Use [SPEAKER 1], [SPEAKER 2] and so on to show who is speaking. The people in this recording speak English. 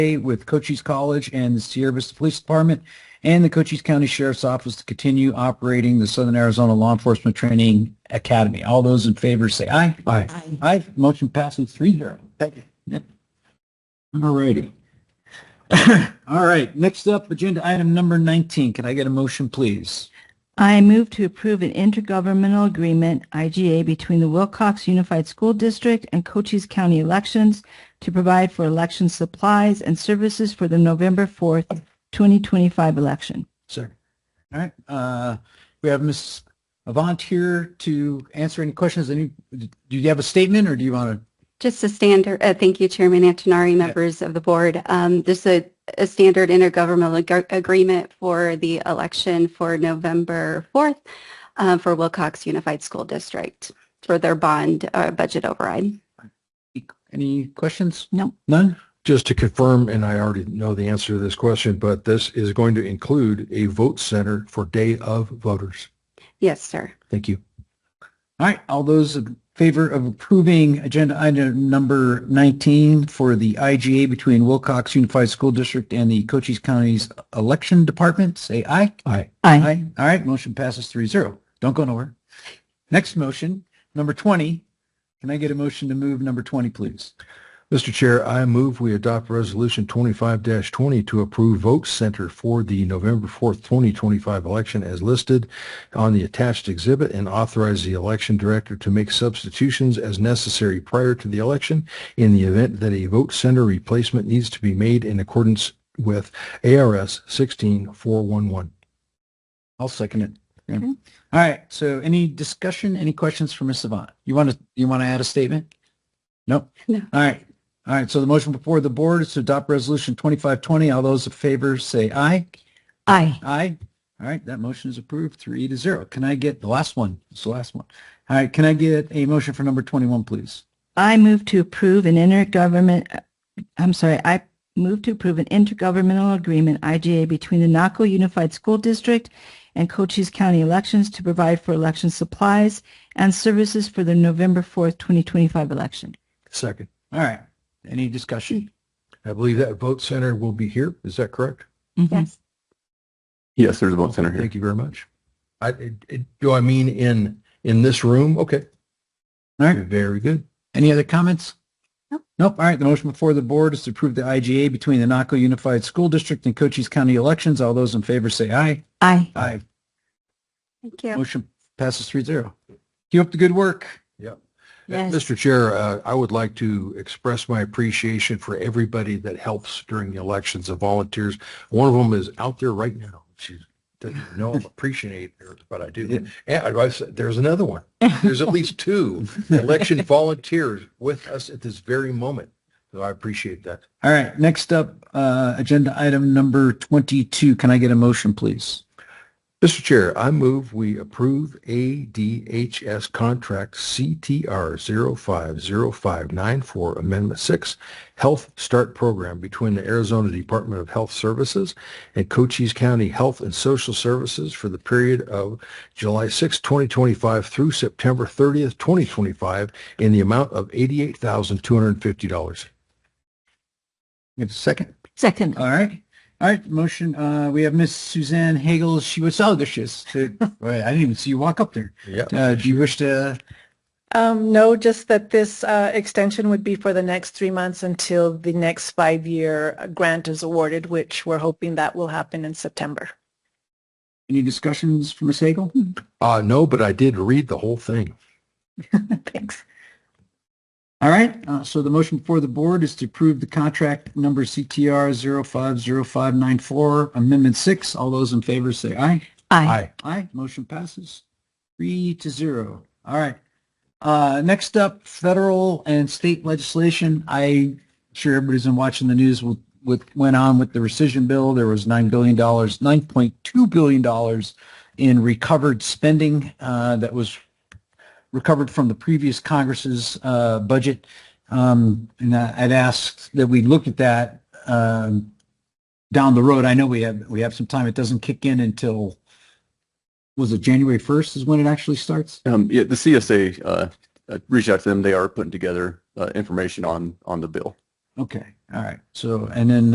[SPEAKER 1] with Cochise College and the Sierra Vista Police Department and the Cochise County Sheriff's Office to continue operating the Southern Arizona Law Enforcement Training Academy. All those in favor say aye. Aye.
[SPEAKER 2] Aye.
[SPEAKER 1] Aye. Motion passes three zero.
[SPEAKER 3] Thank you.
[SPEAKER 1] All righty. All right. Next up, agenda item number 19. Can I get a motion, please?
[SPEAKER 2] I move to approve an intergovernmental agreement, IGA, between the Wilcox Unified School District and Cochise County Elections to provide for election supplies and services for the November 4th, 2025 election.
[SPEAKER 1] Sir. All right. Uh, we have Ms. Avant here to answer any questions. Any, do you have a statement or do you want to?
[SPEAKER 4] Just a standard, uh, thank you, Chairman Antonari, members of the board. Um, This is a standard intergovernmental ag- agreement for the election for November 4th uh, for Wilcox Unified School District for their bond uh, budget override.
[SPEAKER 1] Any questions?
[SPEAKER 2] No.
[SPEAKER 1] None?
[SPEAKER 3] Just to confirm, and I already know the answer to this question, but this is going to include a vote center for day of voters.
[SPEAKER 4] Yes, sir.
[SPEAKER 3] Thank you.
[SPEAKER 1] All right. All those in favor of approving agenda item number 19 for the IGA between Wilcox Unified School District and the Cochise County's Election Department, say aye. Aye.
[SPEAKER 2] Aye.
[SPEAKER 1] Aye. All right, motion passes three zero. Don't go nowhere. Next motion, number twenty. Can I get a motion to move number twenty, please?
[SPEAKER 3] Mr. Chair, I move we adopt Resolution 25-20 to approve vote center for the November 4th, 2025 election as listed on the attached exhibit and authorize the election director to make substitutions as necessary prior to the election in the event that a vote center replacement needs to be made in accordance with ARS 16411.
[SPEAKER 1] I'll second it. Yeah.
[SPEAKER 2] Okay.
[SPEAKER 1] All right, so any discussion, any questions for Ms. Savant? You want to, you want to add a statement? No?
[SPEAKER 4] No.
[SPEAKER 1] All right, all right, so the motion before the board is to adopt resolution twenty-five twenty. All those in favor say aye.
[SPEAKER 2] Aye.
[SPEAKER 1] Aye. All right, that motion is approved, three to zero. Can I get the last one? It's the last one. All right, can I get a motion for number twenty-one, please?
[SPEAKER 2] I move to approve an intergovernment, uh, I'm sorry, I move to approve an intergovernmental agreement, IGA, between the Naco Unified School District and Cochise County Elections to provide for election supplies and services for the November 4th, 2025 election.
[SPEAKER 3] Second.
[SPEAKER 1] All right. Any discussion?
[SPEAKER 3] I believe that vote center will be here. Is that correct?
[SPEAKER 2] Mhm.
[SPEAKER 5] Yes, there's a vote center here.
[SPEAKER 3] Thank you very much. I, it- it- do I mean in, in this room? Okay,
[SPEAKER 1] All right.
[SPEAKER 3] very good.
[SPEAKER 1] Any other comments?
[SPEAKER 4] Nope.
[SPEAKER 1] Nope. All right. The motion before the board is to approve the IGA between the Naco Unified School District and Cochise County elections. All those in favor say aye.
[SPEAKER 2] Aye.
[SPEAKER 1] Aye.
[SPEAKER 4] Thank you.
[SPEAKER 1] Motion passes three zero. Keep up the good work.
[SPEAKER 2] Yes.
[SPEAKER 3] Mr. Chair, uh, I would like to express my appreciation for everybody that helps during the elections, the volunteers. One of them is out there right now. She doesn't even know I appreciate her, but I do. And I was- there's another one. There's at least two election volunteers with us at this very moment. So I appreciate that.
[SPEAKER 1] All right. Next up, uh, agenda item number 22. Can I get a motion, please?
[SPEAKER 3] Mr. Chair, I move we approve ADHS contract CTR 050594 Amendment 6 Health Start Program between the Arizona Department of Health Services and Cochise County Health and Social Services for the period of July 6, 2025 through September 30th, 2025 in the amount of $88,250.
[SPEAKER 1] You have a second?
[SPEAKER 2] Second.
[SPEAKER 1] All right. All right. Motion. Uh, we have Miss Suzanne Hagel. She was so gracious. to- Wait, I didn't even see you walk up there.
[SPEAKER 3] Yeah.
[SPEAKER 1] Uh, do you wish to?
[SPEAKER 6] Um, no, just that this uh, extension would be for the next three months until the next five-year uh, grant is awarded, which we're hoping that will happen in September.
[SPEAKER 1] Any discussions for Ms. Hagel?
[SPEAKER 3] Uh, no, but I did read the whole thing.
[SPEAKER 6] Thanks.
[SPEAKER 1] All right, uh, so the motion before the board is to approve the contract number CTR 050594, Amendment 6. All those in favor say aye.
[SPEAKER 2] Aye.
[SPEAKER 1] Aye, motion passes three to zero. All right. Uh, Next up, federal and state legislation. I'm sure everybody's been watching the news with, with, went on with the rescission bill. There was $9 billion, $9.2 billion in recovered spending uh, that was recovered from the previous Congress's uh, budget. Um, And I- I'd asked that we look at that um, down the road. I know we have, we have some time. It doesn't kick in until was it January 1st is when it actually starts?
[SPEAKER 5] Um, yeah, the CSA, uh, uh, reached out to them. They are putting together, uh, information on, on the bill.
[SPEAKER 1] Okay, all right. So, and then